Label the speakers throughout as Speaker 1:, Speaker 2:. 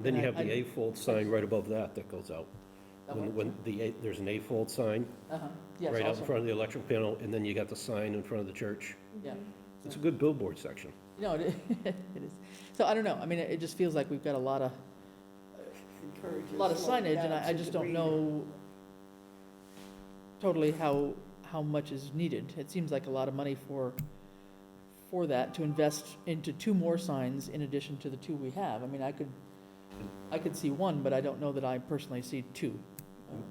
Speaker 1: Then you
Speaker 2: And I-
Speaker 1: have the
Speaker 2: I-
Speaker 1: A-fold sign right above that that goes out.
Speaker 2: That
Speaker 1: When,
Speaker 2: one?
Speaker 1: when the, A- there's an A-fold sign
Speaker 2: Uh-huh, yes,
Speaker 1: right out in
Speaker 2: also,
Speaker 1: front of the electric panel, and then you got the sign in front of the church.
Speaker 2: yeah.
Speaker 1: It's a good billboard section.
Speaker 2: No, it it is. So I don't know, I mean, it it just feels like we've got a lot of, a lot of signage, and I I just don't know totally how, how much is needed. It seems like a lot of money for, for that, to invest into two more signs in addition to the two we have. I mean, I could, I could see one, but I don't know that I personally see two.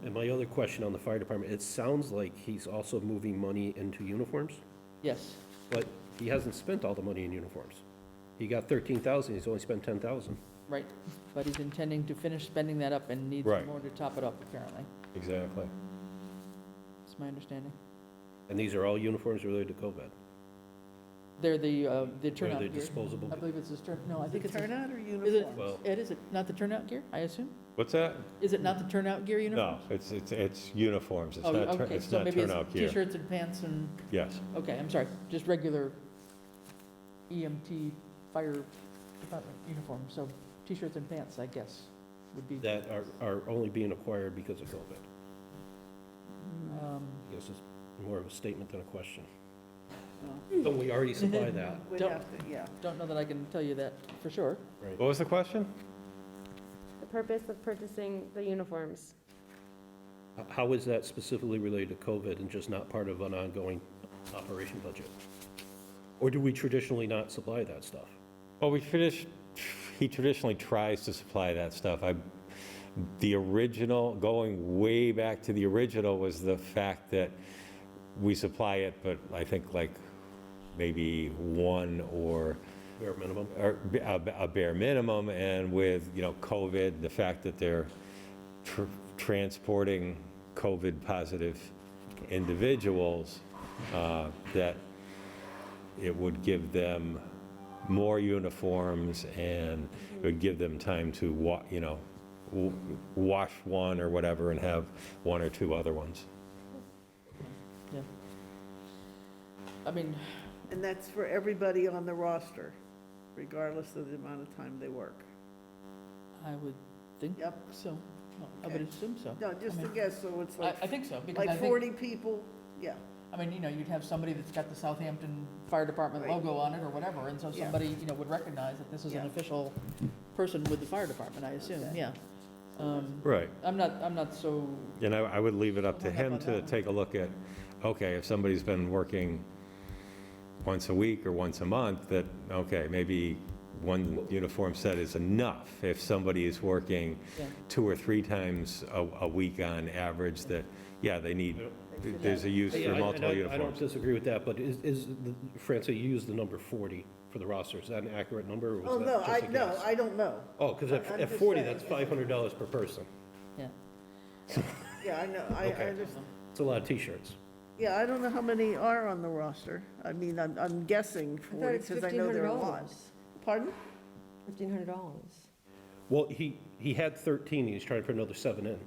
Speaker 1: And my other question on the fire department, it sounds like he's also moving money into uniforms,
Speaker 2: Yes,
Speaker 1: but he hasn't spent all the money in uniforms. He got thirteen thousand, he's only spent ten thousand.
Speaker 2: right, but he's intending to finish spending that up and needs
Speaker 1: Right.
Speaker 2: more to top it up, apparently.
Speaker 1: Exactly.
Speaker 2: That's my understanding.
Speaker 1: And these are all uniforms related to COVID.
Speaker 2: They're the, uh, the
Speaker 1: Where
Speaker 2: turnout
Speaker 1: they're
Speaker 2: gear.
Speaker 1: disposable.
Speaker 2: I believe it's this turn, no, I think it's, a-
Speaker 3: Turnout or
Speaker 2: is it,
Speaker 3: uniform?
Speaker 1: Well-
Speaker 2: Ed, is it not the turnout gear, I assume?
Speaker 4: What's that?
Speaker 2: Is it not the turnout gear
Speaker 4: No,
Speaker 2: uniforms?
Speaker 4: it's, it's, it's uniforms, it's
Speaker 2: Oh,
Speaker 4: not, tur-
Speaker 2: okay,
Speaker 4: it's
Speaker 2: so
Speaker 4: not
Speaker 2: maybe
Speaker 4: turnout gear.
Speaker 2: T-shirts and pants and,
Speaker 4: Yes,
Speaker 2: okay, I'm sorry, just regular EMT fire department uniform, so T-shirts and pants, I guess, would be.
Speaker 1: That are, are only being acquired because of COVID.
Speaker 2: um,
Speaker 1: I guess it's more of a statement than a question.
Speaker 2: well,
Speaker 1: Don't we already supply that?
Speaker 3: We'd
Speaker 2: Don't-
Speaker 3: have to- Yeah.
Speaker 2: Don't know that I can tell you that for sure.
Speaker 4: what was the question?
Speaker 5: The purpose of purchasing the uniforms.
Speaker 1: H- How is that specifically related to COVID and just not part of an ongoing operation budget? Or do we traditionally not supply that stuff?
Speaker 4: Well, we finish, he traditionally tries to supply that stuff. I, the original, going way back to the original was the fact that we supply it, but I think like maybe one or
Speaker 1: Bare minimum?
Speaker 4: or b- a b- a bare minimum, and with, you know, COVID, the fact that they're tr- transporting COVID-positive individuals, uh, that it would give them more uniforms and it would give them time to, wa- you know, w- wash one or whatever and have one or two other ones.
Speaker 2: I mean,
Speaker 3: And that's for everybody on the roster, regardless of the amount of time they work.
Speaker 2: I would think
Speaker 3: Yep.
Speaker 2: so, I would
Speaker 3: Okay.
Speaker 2: assume so.
Speaker 3: No, just
Speaker 2: I
Speaker 3: a
Speaker 2: mean,
Speaker 3: guess, so it's
Speaker 2: I,
Speaker 3: like,
Speaker 2: I think so, because I
Speaker 3: like
Speaker 2: think,
Speaker 3: 40 people, yeah.
Speaker 2: I mean, you know, you'd have somebody that's got the Southampton Fire Department
Speaker 3: Right.
Speaker 2: logo on it or whatever, and so
Speaker 3: Yeah.
Speaker 2: somebody, you know, would recognize that this is an
Speaker 3: Yeah.
Speaker 2: official person with the fire department, I assume,
Speaker 3: Okay.
Speaker 2: yeah. Um,
Speaker 4: Right.
Speaker 2: I'm not, I'm not so,
Speaker 4: And I, I would leave it up
Speaker 2: Hung
Speaker 4: to
Speaker 2: up
Speaker 4: him
Speaker 2: on that
Speaker 4: to
Speaker 2: one.
Speaker 4: take a look at, okay, if somebody's been working once a week or once a month, that, okay, maybe one uniform set is enough. If somebody is working
Speaker 2: yeah,
Speaker 4: two or three times a, a week on average, that, yeah, they need, there's a use
Speaker 1: Yeah,
Speaker 4: for
Speaker 1: I- and
Speaker 4: multiple
Speaker 1: I- I don't
Speaker 4: uniforms.
Speaker 1: disagree with that, but is, is, the- Francie, you used the number 40 for the roster. Is that an accurate number or
Speaker 3: Oh,
Speaker 1: was
Speaker 3: no,
Speaker 1: that
Speaker 3: I,
Speaker 1: just a
Speaker 3: no,
Speaker 1: guess?
Speaker 3: I don't know.
Speaker 1: Oh, because
Speaker 3: I- I'm
Speaker 1: at at
Speaker 3: just
Speaker 1: 40,
Speaker 3: saying.
Speaker 1: that's $500 per person.
Speaker 2: yeah.
Speaker 3: Yeah, I know, I, I
Speaker 1: Okay.
Speaker 3: just,
Speaker 1: It's a lot of t-shirts.
Speaker 3: yeah, I don't know how many are on the roster. I mean, I'm, I'm guessing 40, because I know there are a lot. Pardon?
Speaker 5: Fifteen hundred dollars.
Speaker 1: Well, he, he had 13, he's trying to put another seven in,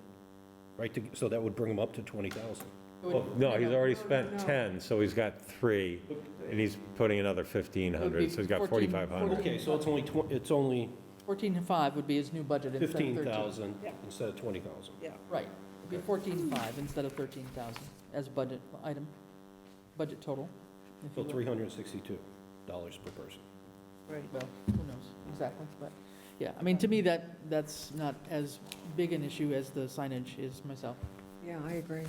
Speaker 1: right? to- So that would bring him up to 20,000.
Speaker 2: It would-
Speaker 4: Well, No, he's already spent 10, so he's got three, and he's putting another
Speaker 2: It would be
Speaker 4: 1,500, so he's got
Speaker 2: 14
Speaker 4: 4,500.
Speaker 1: Okay, so it's only, twen- it's only
Speaker 2: Fourteen and five would be his new budget instead of thirteen.
Speaker 1: 15,000
Speaker 3: Yeah.
Speaker 1: instead of 20,000.
Speaker 3: Yeah.
Speaker 2: Right, it'd be fourteen five instead of thirteen thousand as budget item, budget total. if
Speaker 1: So
Speaker 2: you will.
Speaker 1: $362 per person.
Speaker 3: Right.
Speaker 2: Well, who knows, exactly, but, yeah, I mean, to me, that, that's not as big an issue as the signage is myself.
Speaker 5: Yeah, I agree.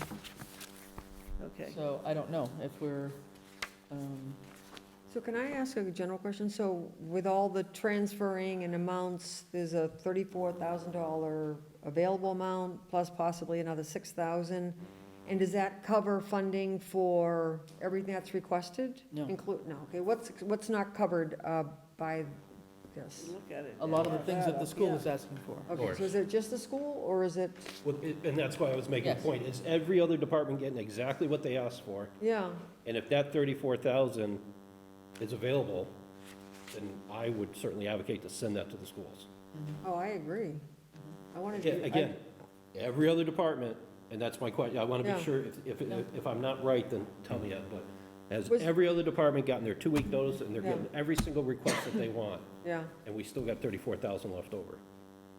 Speaker 3: Okay.
Speaker 2: So I don't know if we're, um,
Speaker 5: So can I ask a general question? So with all the transferring and amounts, there's a thirty-four thousand dollar available amount, plus possibly another six thousand? And does that cover funding for everything that's requested?
Speaker 2: No.
Speaker 5: Include, no, okay, what's, what's not covered uh, by this?
Speaker 3: Look at it.
Speaker 2: a lot of the things that the school
Speaker 3: Yeah.
Speaker 2: is asking for.
Speaker 5: Okay,
Speaker 1: course.
Speaker 5: so is it just the school, or is it,
Speaker 1: Well, it- And that's why I was making the
Speaker 2: Yes.
Speaker 1: point, is every other department getting exactly what they asked for?
Speaker 5: yeah,
Speaker 1: And if that 34,000 is available, then I would certainly advocate to send that to the schools.
Speaker 5: oh, I agree. I wanted
Speaker 1: Again-
Speaker 5: to.
Speaker 1: Again, every other department, and that's my question, I want to
Speaker 5: Yeah.
Speaker 1: be sure, if, if, if I'm not right, then tell me that, but has
Speaker 5: Was-
Speaker 1: every other department gotten their two-week notice, and they're
Speaker 5: Yeah.
Speaker 1: getting every single request that they want,
Speaker 5: Yeah,
Speaker 1: and we still got 34,000 left over?